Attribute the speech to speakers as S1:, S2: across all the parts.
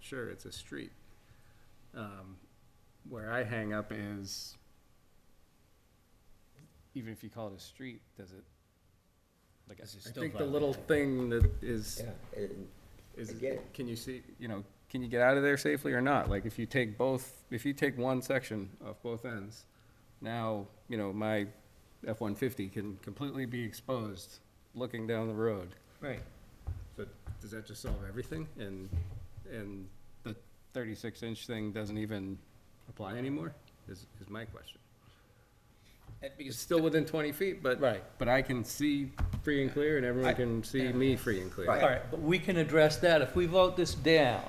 S1: sure it's a street. Um, Where I hang up is, even if you call it a street, does it? Like,
S2: Does it
S1: I
S2: still
S1: think the little thing that is,
S3: Yeah, and
S1: is,
S3: I get it.
S1: can you see, you know, can you get out of there safely or not? Like, if you take both, if you take one section off both ends, now, you know, my F-150 can completely be exposed looking down the road.
S2: Right.
S1: But does that just solve everything? And, and the thirty-six inch thing doesn't even apply anymore, is, is my question. It's still within twenty feet, but.
S2: Right.
S1: But I can see free and clear, and everyone
S2: I-
S1: can see me free and clear.
S3: Right.
S2: All right, but we can address that. If we vote this down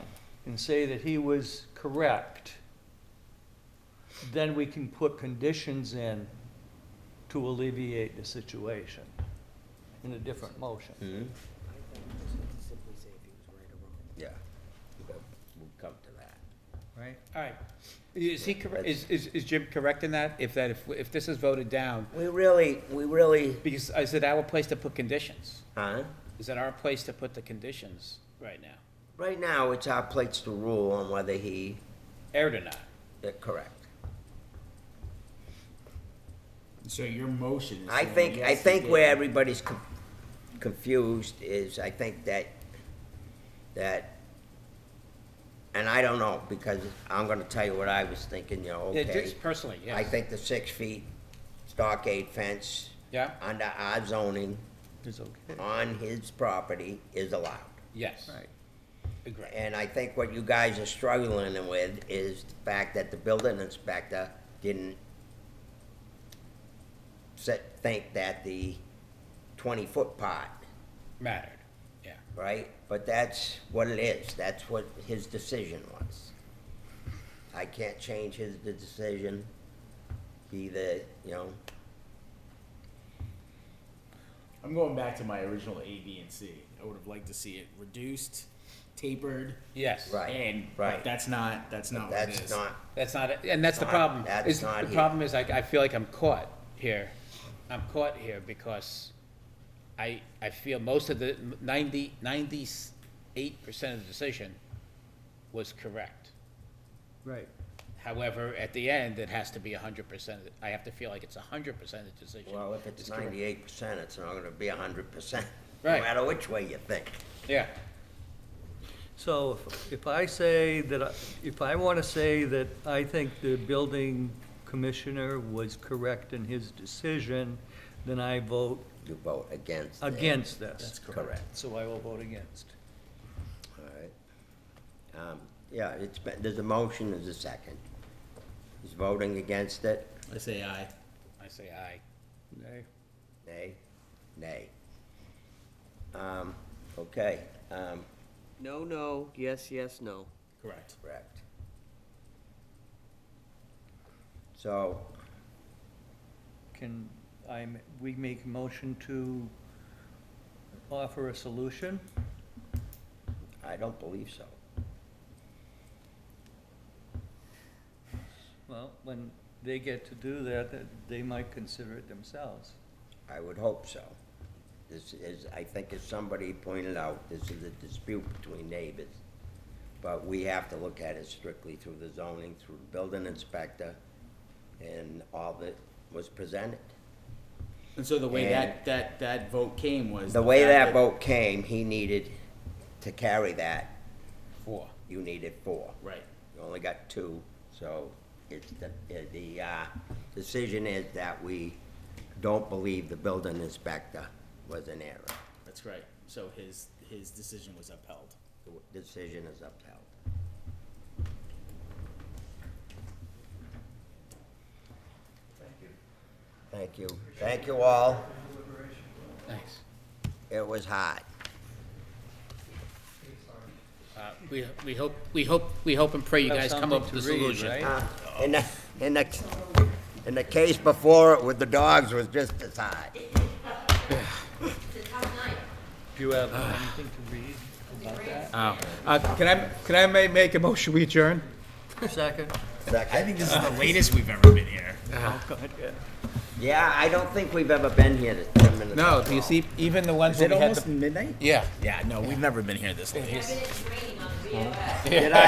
S2: and say that he was correct, then we can put conditions in to alleviate the situation in a different motion.
S3: Mm-hmm.
S4: simply say if he was right or wrong.
S3: yeah, we'll come to that.
S5: Right, all right. Is he, correct? is, is is Jim correct in that? If that, if, if this is voted down,
S3: We really, we really,
S5: because is it our place to put conditions?
S3: huh?
S5: Is it our place to put the conditions right now?
S3: Right now, it's our plates to rule on whether he,
S5: Aired or not?
S3: they're correct.
S2: So your motion
S3: I think, I think where everybody's con- confused is, I think that, that, and I don't know, because I'm gonna tell you what I was thinking, you know,
S5: Yeah,
S3: okay.
S5: just personally, yes.
S3: I think the six feet stockade fence.
S5: Yeah.
S3: Under our zoning
S5: It's okay.
S3: on his property is allowed.
S5: Yes. Agree.
S3: And I think what you guys are struggling with is the fact that the building inspector didn't set, think that the twenty-foot part,
S5: Mattered, yeah.
S3: right? But that's what it is, that's what his decision was. I can't change his de- decision, He the you know,
S6: I'm going back to my original A, B, and C. I would have liked to see it reduced, tapered,
S5: Yes.
S3: Right,
S6: and
S3: right.
S6: but that's not that's not what Oh, it
S3: that's
S6: is.
S3: not,
S5: That's not, it. and that's the
S3: Not-
S5: problem.
S3: that's
S5: is-
S3: not
S5: The
S3: here.
S5: problem is I, I feel like I'm caught here. I'm caught here because I, I feel most of the ninety, ninety-eight percent of the decision was correct.
S2: Right.
S5: However, at the end, it has to be hundred percent. I have to feel like it's hundred percent of the decision.
S3: well, if it's
S5: is correct.
S3: ninety-eight percent, it's not gonna be a hundred percent.
S5: Right.
S3: No matter which way you think.
S5: Yeah,
S2: So if- if I say that, I- if I want to say that I think the building commissioner was correct in his decision, then I vote
S3: You vote against.
S4: Uh,
S3: it.
S2: against this.
S3: That's correct.
S2: So I will vote against.
S3: All right. Um, Yeah, it's, been- there's a motion, there's a second. He's voting against it,
S6: I say aye.
S5: I say aye.
S3: nay, nay. Um, Okay, um,
S4: No, no, yes, yes, no.
S6: Correct.
S3: correct. So,
S2: Can I, m- we make a motion to offer a solution?
S3: I don't believe so.
S2: Well, when they get to do that, that they might consider it themselves.
S3: I would hope so. This is, I think as somebody pointed out, this is a dispute between neighbors. But we have to look at it strictly through the zoning, through the building inspector, and all that was presented.
S6: And so the way
S3: And-
S6: that, that that vote came was
S3: The way that
S6: fact
S3: vote came, he needed to carry that,
S5: Four.
S3: you needed four.
S6: Right.
S3: You only got two, so it's the, the, uh, decision is that we don't believe the building inspector was in error.
S6: That's right. So his his decision was upheld.
S3: The decision is upheld. Thank you. Thank you all.
S5: Thanks.
S3: It was hot.
S5: Uh, we, we hope, we hope, we hope and pray you
S2: Have
S5: guys come up
S2: something
S5: with a
S2: to read,
S5: solution.
S2: right?
S3: Uh, In the, in the, in the case before it with the dogs was just as hot.
S2: Do you have anything to read about that?
S5: Uh, can I, can I ma- make a motion, we adjourn?
S2: Second?
S6: I think this is the latest we've ever been here.
S2: Oh, God, yeah.
S3: Yeah, I don't think we've ever been here to ten minutes.
S5: No,
S3: after
S5: do you
S3: all.
S5: see, even the ones
S6: Is
S5: that
S6: it
S5: we had
S6: almost
S5: the.
S6: midnight?
S5: Yeah.
S6: Yeah. No, we've never been here this late.
S7: I've been in training on the VFS.
S3: Did I